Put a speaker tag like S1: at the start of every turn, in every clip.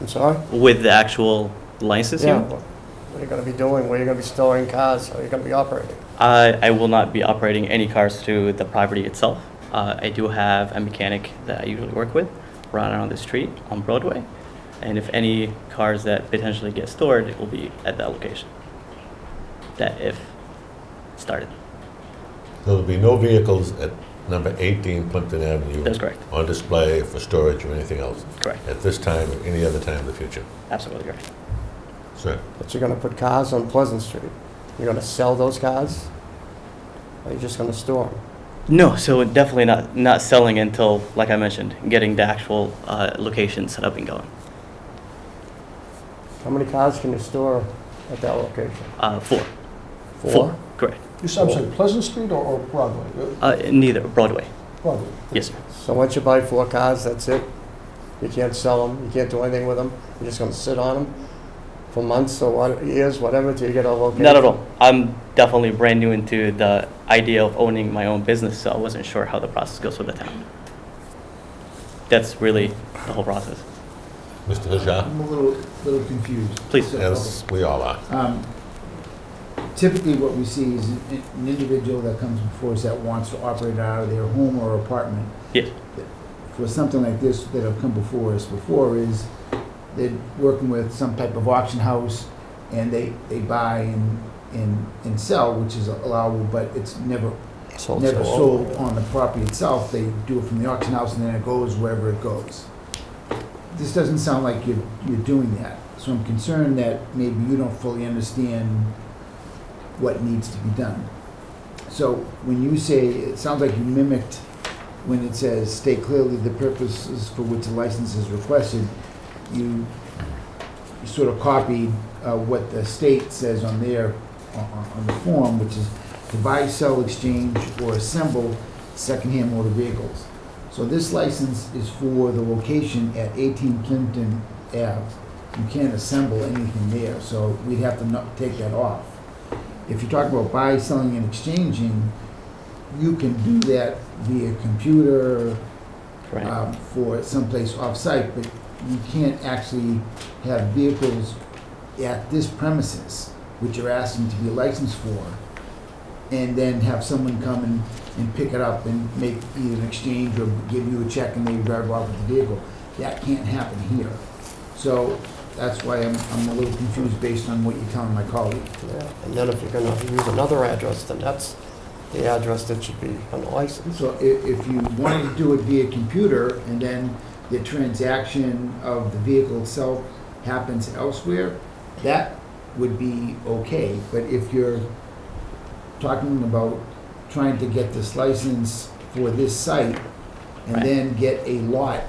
S1: I'm sorry?
S2: with the actual license
S1: Yeah.
S2: here?
S1: What are you going to be doing? Where are you going to be storing cars? How are you going to be operating?
S2: I, I will not be operating any cars through the property itself. Uh, I do have a mechanic that I usually work with right on the street on Broadway. And if any cars that potentially get stored, it will be at that location. That if started.
S3: There'll be no vehicles at number 18 Plimpton Avenue.
S2: That's correct.
S3: On display for storage or anything else
S2: Correct.
S3: at this time or any other time in the future.
S2: Absolutely correct.
S3: Sir,
S1: But you're going to put cars on Pleasant Street. You're going to sell those cars? Or you are just going to store them?
S2: No, so definitely not, not selling until, like I mentioned, getting the actual uh, location set up and going.
S1: How many cars can you store at that location?
S2: Uh, four.
S1: Four?
S2: Correct.
S4: You said, I'm sorry, Pleasant Street or- or Broadway?
S2: Uh, neither Broadway.
S4: Uh, Broadway.
S2: Yes, sir.
S1: So once you buy four cars, that's it? You can't sell them, you can't do anything with them, you're just going to sit on them for months or what- years, whatever, till you get a location?
S2: Not at all. I'm definitely brand new into the idea of owning my own business, so I wasn't sure how the process goes with the town. That's really the whole process.
S3: Mr. Hajar,
S5: I'm a little, little confused.
S2: Please.
S5: So,
S3: as we all are.
S5: um, Typically, what we see is an an individual that comes before us that wants to operate out of their home or apartment.
S2: Yes.
S5: For something like this that have come before us before is they're working with some type of auction house and they, they buy and, and, and sell, which is allowable, but it's never,
S1: Sold,
S5: never
S1: sold.
S5: sold on the property itself. They do it from the auction house and then it goes wherever it goes. This doesn't sound like you're, you're doing that. So I'm concerned that maybe you don't fully understand what needs to be done. So when you say, it sounds like you mimicked when it says state clearly the purposes for which the license is requested, you you sort of copied uh, what the state says on their, on- on on the form, which is to buy, sell, exchange, or assemble secondhand motor vehicles. So this license is for the location at 18 Plimpton Ave. You can't assemble anything there, so we'd have to not take that off. If you talk about buy, selling, and exchanging, you can do that via computer,
S2: Right.
S5: um, for someplace off-site, but you can't actually have vehicles at this premises, which you're asking to be licensed for, and then have someone come and, and pick it up and make either an exchange or give you a check and they drive off with the vehicle. That can't happen here. So that's why I'm, I'm a little confused based on what you're telling my colleague.
S1: Yeah, And then if you're going to use another address, then that's the address that should be on the license.
S5: So if, if you wanted to do it via computer and then the transaction of the vehicle itself happens elsewhere, that would be okay. But if you're talking about trying to get this license for this site and
S2: Right.
S5: then get a lot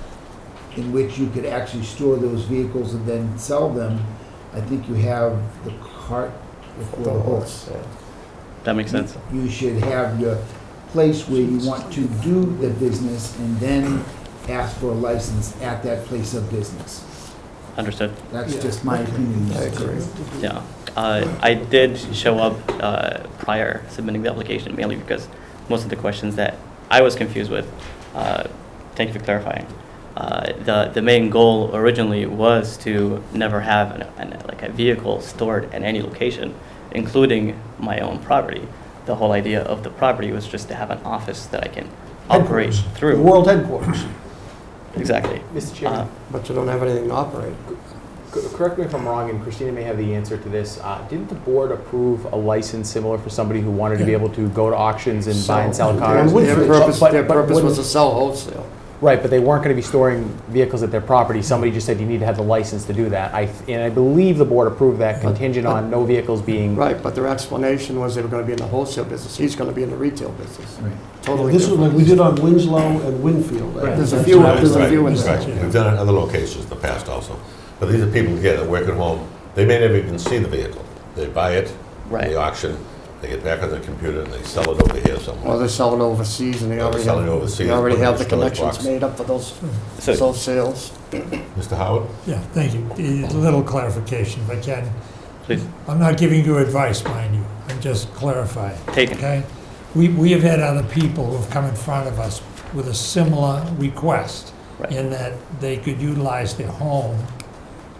S5: in which you could actually store those vehicles and then sell them, I think you have the cart before the horse
S1: Yeah.
S2: That makes sense.
S5: you should have your place where you want to do the business and then ask for a license at that place of business.
S2: Understood.
S5: That's
S4: Yeah.
S5: just my opinion.
S1: I agree.
S2: Yeah. Uh, I did show up uh, prior submitting the application mainly because most of the questions that I was confused with, uh, thank you for clarifying. Uh, the the main goal originally was to never have an, an, like a vehicle stored at any location, including my own property. The whole idea of the property was just to have an office that I can operate
S4: Headquarters. The
S2: through.
S4: World headquarters.
S2: Exactly.
S6: Mr.
S2: Uh,
S6: Chairman,
S1: But you don't have anything to operate.
S6: c- correct me if I'm wrong, and Christina may have the answer to this. Uh, Didn't the board approve a license similar for somebody who wanted to be able to go to auctions and buy and sell cars?
S4: would-
S1: Their
S4: Woodford,
S1: purpose,
S6: but-
S1: their
S6: but
S1: purpose was
S6: wouldn't-
S1: to sell wholesale.
S6: Right, but they weren't going to be storing vehicles at their property. Somebody just said you need to have the license to do that. I, th- and I believe the board approved that
S1: Uh,
S6: contingent on no vehicles being.
S1: Right, but their explanation was they were going to be in the wholesale business. He's going to be in the retail business.
S5: Right.
S1: Totally
S4: This is
S1: different.
S4: like we did on Winslow and Winfield.
S6: Right.
S1: There's a
S4: That's
S1: few-
S4: what I-
S1: there's a
S3: Right,
S1: few in
S3: right.
S1: there.
S3: We've done it in other locations in the past also. But these are people, yeah, that work at home. They may never even see the vehicle. They buy it,
S2: Right.
S3: they auction, they get back on their computer and they sell it over here somewhere.
S1: Or they're selling overseas and they
S3: Or they're
S1: already
S3: selling
S1: have,
S3: overseas,
S1: they already
S3: put it in
S1: have
S3: a
S1: the
S3: storage
S1: connections
S3: box.
S1: made up for those,
S2: so
S1: those sales.
S3: Mr. Howard?
S7: Yeah, thank you. A little clarification if I can.
S2: please
S7: I'm not giving you advice, mind you. I'm just clarifying,
S2: take it.
S7: okay? We, we have had other people who've come in front of us with a similar request
S2: Right.
S7: in that they could utilize their home